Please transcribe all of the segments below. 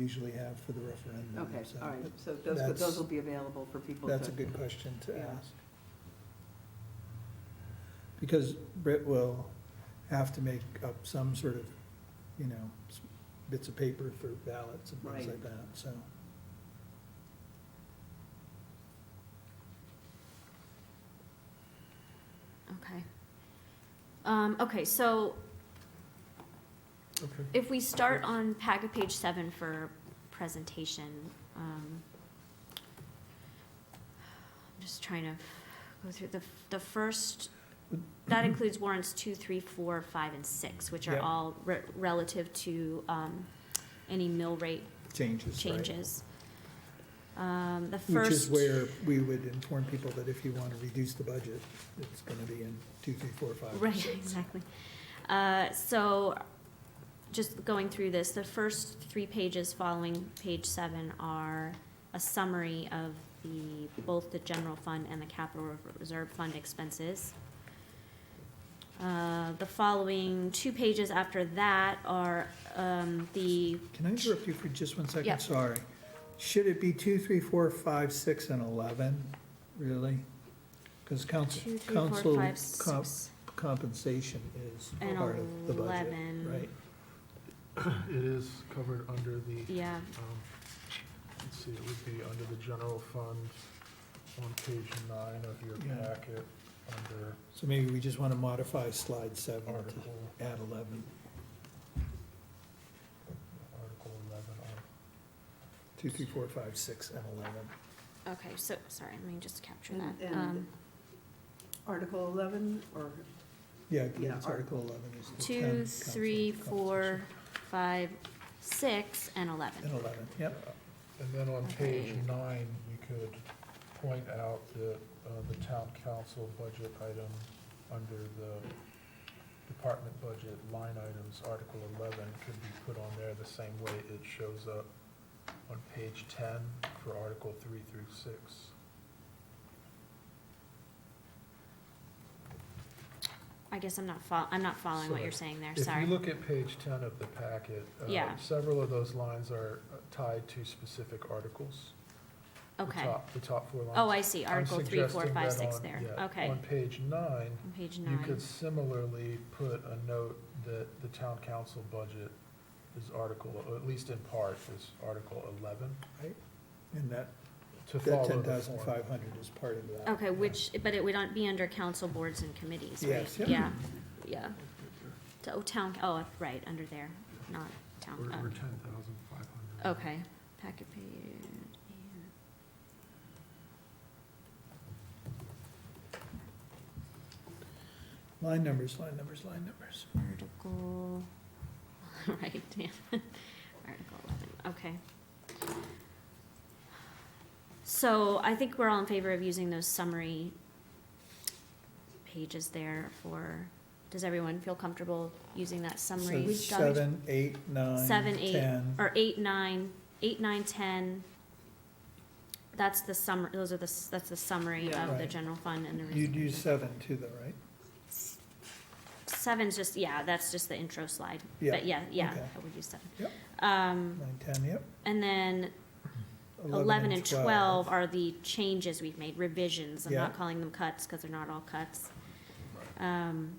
usually have for the referendum. Okay, so all right, so those, that's- those will be available for people to. That's a good question to Yeah. ask. Because Britt will have to make up some sort of, you know, s- bits of paper for ballots and things Right. like that, so. Okay. Um, okay, so Okay. if we start on packet page seven for presentation, um, I'm just trying to go through the, the first, that includes warrants two, three, four, five, and six, which are Yeah. all re- relative to, um, any mill rate Changes, right? changes. Um, the first. Which is where we would inform people that if you want to reduce the budget, it's going to be in two, three, four, five. or Right, six. exactly. Uh, So, just going through this, the first three pages following page seven are a summary of the, both the general fund and the capital reserve fund expenses. Uh, The following two pages after that are um, the, Can I interrupt you for just one second? Yeah. Sorry. Should it be two, three, four, five, six, and 11, really? Because council, two, three, council four, five, comp- six, compensation is and part of the budget, eleven. right? It is covered under the, Yeah, um, let's see, it would be under the general fund on page nine of your Yeah. packet, under So maybe we just want to modify slide seven to Article, add 11, Article eleven, Ar- two, three, four, five, six, and 11. okay, so, sorry, let me just capture And- that. and- Um, Article eleven, or, Yeah, I believe Yeah, it's Ar- Article 11 is the town two, council three, four, compensation. five, six, and eleven. And 11, yep. and then on page Okay. nine, you could point out the, uh, the town council budget item under the department budget line items, Article eleven could be put on there the same way it shows up on page ten for Article three through six. I guess I'm not fol, I'm not following what you're saying there, If you sorry. look at page ten of the packet, uh, Yeah. several of those lines are uh, tied to specific articles. The Okay. top- The top four lines. Oh, I see, I'm Article three, four, suggesting five, that six on- there, yeah, okay. On page nine, On page you nine, could similarly put a note that the town council budget is article, or at least in part, is Article eleven, And that, to that follow the form. 10,500 is part of that. okay, which, but it would not be under council boards and committees, right? Yes, Yeah, yeah. yeah. To- Oh, town, oh, right, under there, not town, uh, ten thousand five hundred. Okay, packet page. yeah. Line numbers, line numbers, line numbers. Article, right, yeah, Article eleven, okay. So I think we're all in favor of using those summary pages there for, does everyone feel comfortable using that So summary? document? seven, eight, nine, Seven, eight, ten. Or eight, nine, eight, nine, ten, that's the summary, those are the, s- that's the summary Yeah. of the Right. general fund and the. You'd reserve use fund. seven too, though, right? Seven's just, yeah, that's just the intro slide. Yeah, But yeah, yeah, okay. I would use seven. Yep. Um, Nine, ten, yep. and then eleven and twelve are the changes we've made, revisions. I'm Yeah. not calling them cuts, cause they're not all cuts. Um.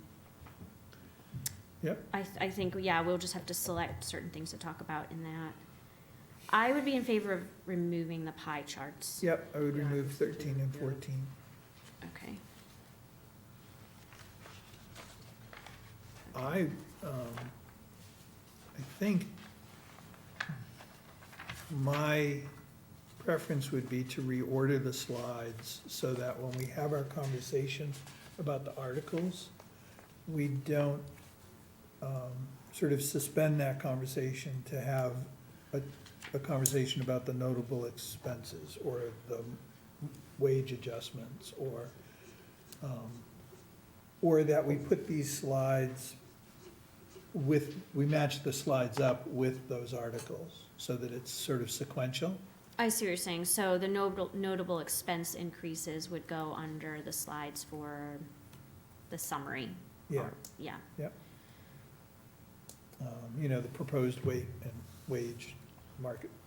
Yep. I, th- I think, yeah, we'll just have to select certain things to talk about in that. I would be in favor of removing the pie charts. Yep, I would Yeah, remove just do, thirteen and yeah. fourteen. Okay. I, um, I think my preference would be to reorder the slides so that when we have our conversation about the articles, we don't, um, sort of suspend that conversation to have a, a conversation about the notable expenses or the wage adjustments or, um, or that we put these slides with, we match the slides up with those articles, so that it's sort of sequential. I see what you're saying. So the notable, notable expense increases would go under the slides for the summary. Yeah, or- Yeah, um, you know, the proposed weight and wage market